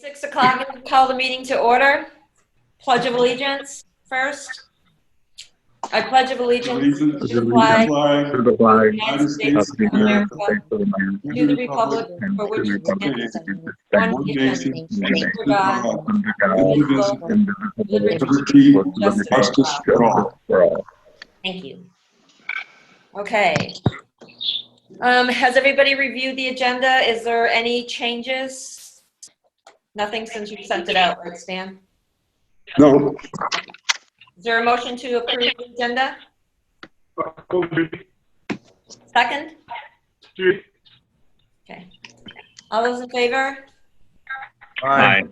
Six o'clock, and call the meeting to order. Pledge of allegiance first. I pledge of allegiance to Allegiance the flag flag To the flag United United of States States the of America, United States of America to the republic and for to which the it republic stands, for one which nation, it stands, under God, under God, indivisible, indivisible, liberty, with justice liberty and justice for all. for all. Thank you. Okay. Um, Has everybody reviewed the agenda? Is there any changes? Nothing since you sent it out, right, Stan? No. Is there a motion to approve the agenda? Oh, Second? Okay. All those in favor? Aye.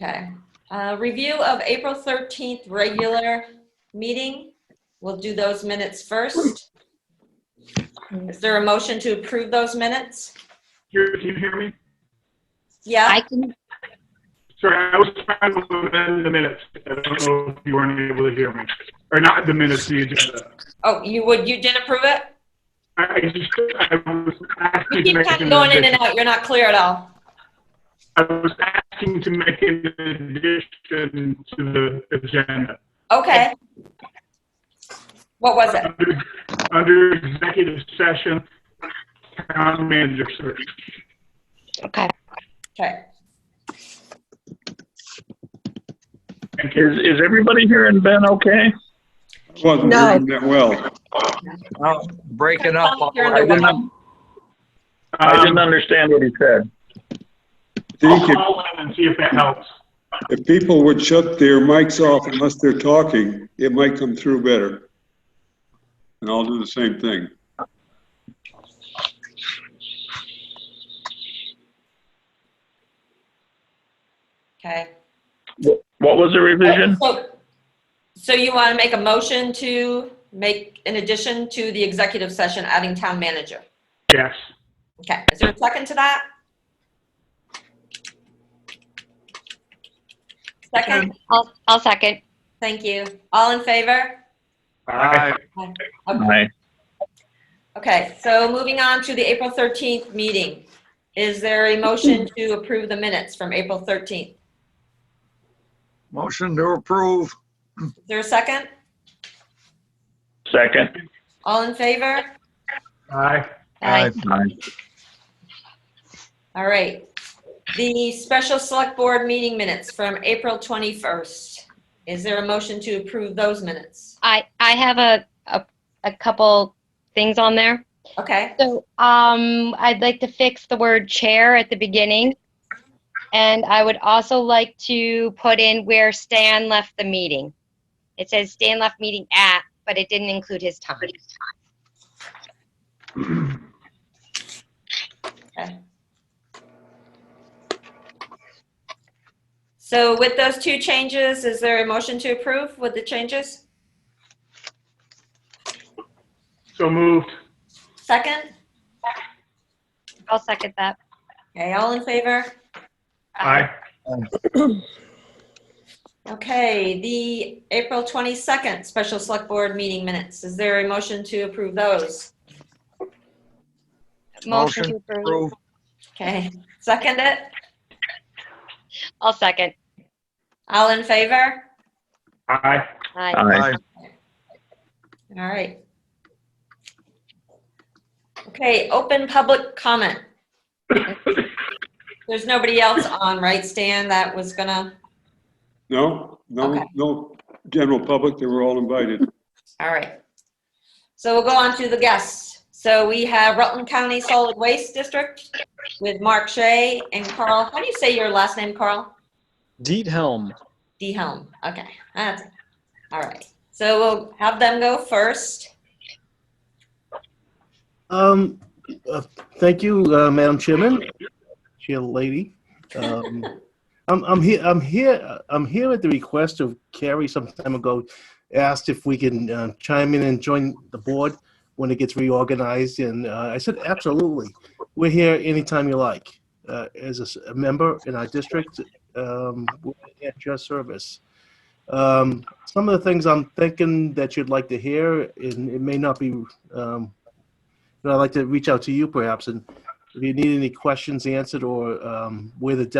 Okay. Uh, Review of April 13th regular meeting. We'll do those minutes first. Is there a motion to approve those minutes? Here, can you hear me? Yeah, I can, Sorry, I was trying to amend the minutes. I don't know if you weren't able to hear me. Or not the minutes, the agenda. oh, you would, you didn't approve it? I I just, I was You asking to keep make kind an of going in addition. and out, you're not clear at all. I was asking to make an addition to the agenda. Okay. What was it? Under- Under executive session, town manager search. okay. Okay. Thank Is, you. is everybody hearing Ben okay? Wasn't No. working that well. Oh, breaking up. all You're in I the right. didn't, Um, I didn't understand what he said. I'll Think if, call in and see if that helps. if people would shut their mics off unless they're talking, it might come through better. And I'll do the same thing. Okay. What was the revision? So so you want to make a motion to make, in addition to the executive session, adding town manager? Yes. Okay, is there a second to that? Second, Um, I'll, I'll second. thank you. All in favor? Aye. Aye. Okay, so moving on to the April 13th meeting. Is there a motion to approve the minutes from April 13th? Motion to approve. Is there a second? Second. All in favor? Aye. Aye. Aye. All right. The special select board meeting minutes from April 21st. Is there a motion to approve those minutes? I, I have a, a, a couple things on there. Okay, So, um, I'd like to fix the word chair at the beginning. And I would also like to put in where Stan left the meeting. It says Stan left meeting at, but it didn't include his time. so with those two changes, is there a motion to approve with the changes? So moved. Second? I'll second that. Okay, all in favor? Aye. Okay, the April 22nd special select board meeting minutes. Is there a motion to approve those? Motion Motion to approve. Approve. Okay, second it? I'll second. All in favor? Aye. Aye. Aye. Aye. All right. Okay, open public comment. There's nobody else on, right, Stan, that was gonna, No, no, Okay. no, general public, they were all invited. all right. So we'll go on to the guests. So we have Rutland County Solid Waste District with Mark Shea and Carl, how do you say your last name, Carl? Diethelm. D Helm, okay, that's, all right. So we'll have them go first. Um, uh, thank you, uh, Madam Chairman, Chair Lady. Um, I'm, I'm here, I'm here, I'm here at the request of Carrie some time ago, asked if we can uh, chime in and join the board when it gets reorganized, and uh, I said, absolutely. We're here anytime you like. Uh, As a s- a member in our district, um, we're at your service. Um, Some of the things I'm thinking that you'd like to hear, and it may not be um, but I'd like to reach out to you perhaps, and if you need any questions answered or um, where the desk